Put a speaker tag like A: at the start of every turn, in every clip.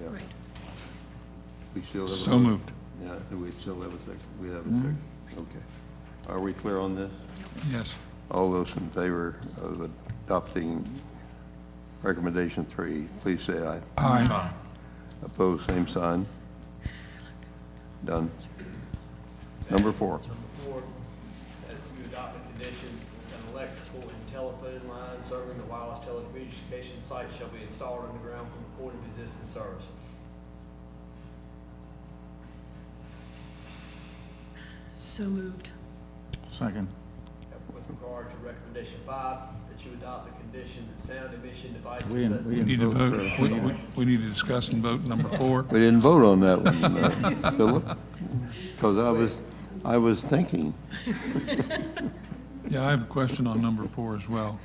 A: yeah.
B: Right.
A: We still have. a-
C: So moved.
A: Yeah, do we still have a second, we have a second, okay. Are we clear on this?
C: Yes.
A: All those in favor of adopting recommendation three, please say aye.
C: Aye.
A: Opposed, same sign. Done. Number four.
D: Four, that you adopt a uh, condition, an electrical and telephone line serving the wireless telecommunications site shall be installed underground from the point of existing service.
B: So moved.
C: Second.
D: With regard to recommendation five, that you adopt a condition that sound emission devices.
E: We didn't,
D: such-
E: we
C: We need
E: didn't
C: to
E: vote
C: vote,
E: for
C: we, we- we need to discuss and vote number four.
A: We didn't vote on that one, uh, Philip, because I was, I was thinking,
C: Yeah, I have a question on number four as well.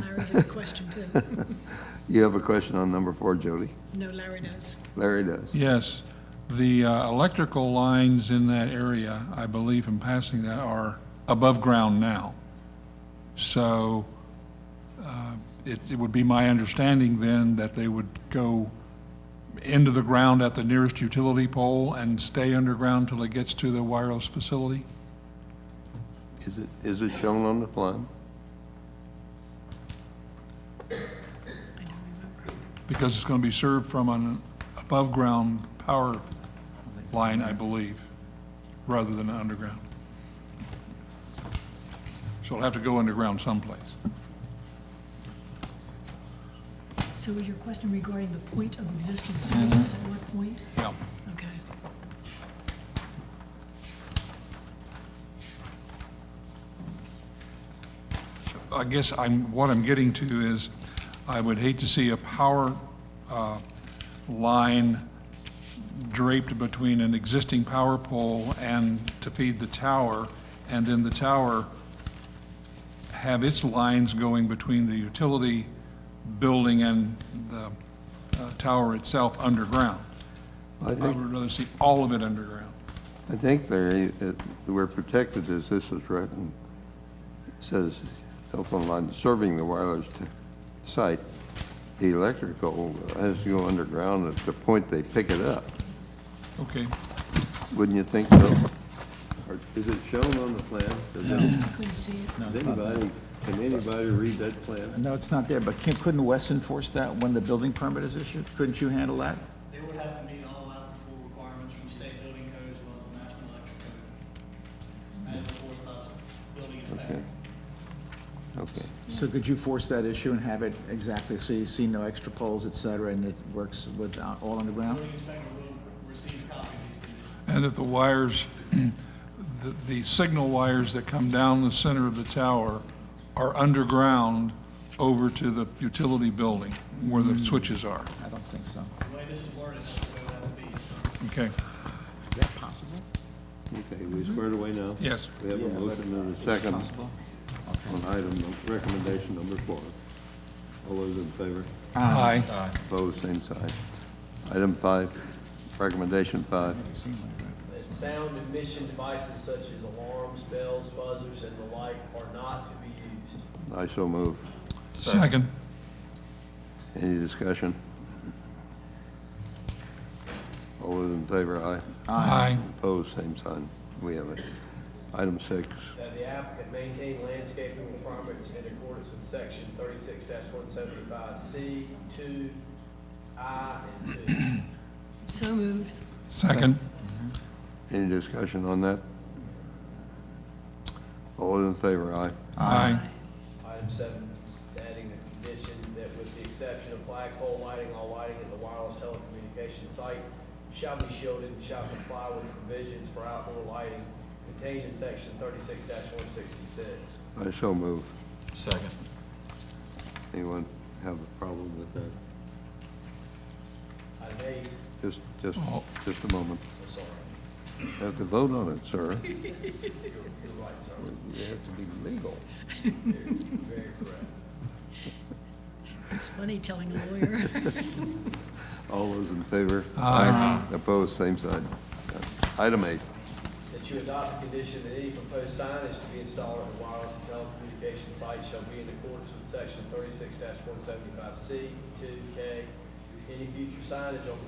B: Larry has a question too.
A: you have a question on number four, Jody?
B: No, Larry does.
A: Larry does.
C: Yes, the uh, electrical lines in that area, I believe in passing that, are above ground now. So uh, it it would be my understanding then that they would go into the ground at the nearest utility pole and stay underground till it gets to the wireless facility?
A: Is it, is it shown on the plan?
B: I don't remember.
C: Because it's going to be served from an above-ground power line, I believe, rather than underground. So it'll have to go underground someplace.
B: So was your question regarding the point of existing service, at what point?
C: Yeah.
B: Okay.
C: I guess I'm, what I'm getting to is, I would hate to see a power uh, line draped between an existing power pole and to feed the tower, and then the tower have its lines going between the utility building and the uh, tower itself underground.
A: I
C: I
A: think,
C: would rather see all of it underground.
A: I think, Larry, that we're protected as this is written. It Says telephone line serving the wireless t- site, the electrical has to go underground at the point they pick it up.
C: Okay,
A: Wouldn't you think so? Or is it shown on the plan? Does it-
B: I couldn't see it.
E: No,
A: Does
E: it's not there.
A: anybody, can anybody read that plan?
E: No, it's not there, but can't, couldn't Wes enforce that when the building permit is issued? Couldn't you handle that?
F: They would have to meet all applicable requirements from state building code as well as the national electric code. As enforced by the building inspector.
A: Okay.
E: So could you force that issue and have it exactly, so you see no extra poles, et cetera, and it works with uh, all underground?
F: Building inspector will receive a copy of these conditions.
C: and that the wires, the, the signal wires that come down the center of the tower are underground over to the utility building where the switches are.
E: I don't think so.
F: The way this is worded, that's the way it would have to be. So
C: Okay,
E: Is that possible?
A: Okay, we squared away now?
C: yes.
A: We have a
E: Yeah,
A: motion
E: but, uh,
A: and a
E: it's
A: second
E: possible.
A: on item, recommendation number four. All those in favor?
C: Aye.
A: Opposed, same sign. Item five, recommendation five.
D: That sound emission devices such as alarms, bells, buzzers, and the like are not to be used.
A: I so move.
C: Second.
A: Any discussion? All those in favor, aye.
C: Aye.
A: Opposed, same sign. We have it. Item six,
D: That the applicant maintain landscaping requirements in accordance with section thirty-six one seventy-five C, two, I, and two.
B: So moved.
C: Second.
A: any discussion on that? All those in favor, aye.
C: Aye.
D: Item seven, adding a condition that with the exception of flagpole lighting, all lighting at the wireless telecommunications site shall be shielded and shall comply with the provisions for outdoor lighting contained in section thirty-six one sixty-six.
A: I so move.
G: Second.
A: Anyone have a problem with that?
D: Item eight,
A: Just, just,
C: Oh.
A: just a moment.
D: I'm sorry,
A: Have to vote on it, sir.
D: you're, you're right, sir,
A: We have to be legal.
D: very correct.
B: It's funny telling a lawyer.
A: All those in favor? Aye. Opposed, same side. Item eight,
D: That you adopt the condition that any proposed signage to be installed at the wireless and telecommunications site shall be in accordance with section thirty-six one seventy-five C, two, K. Any future signage on the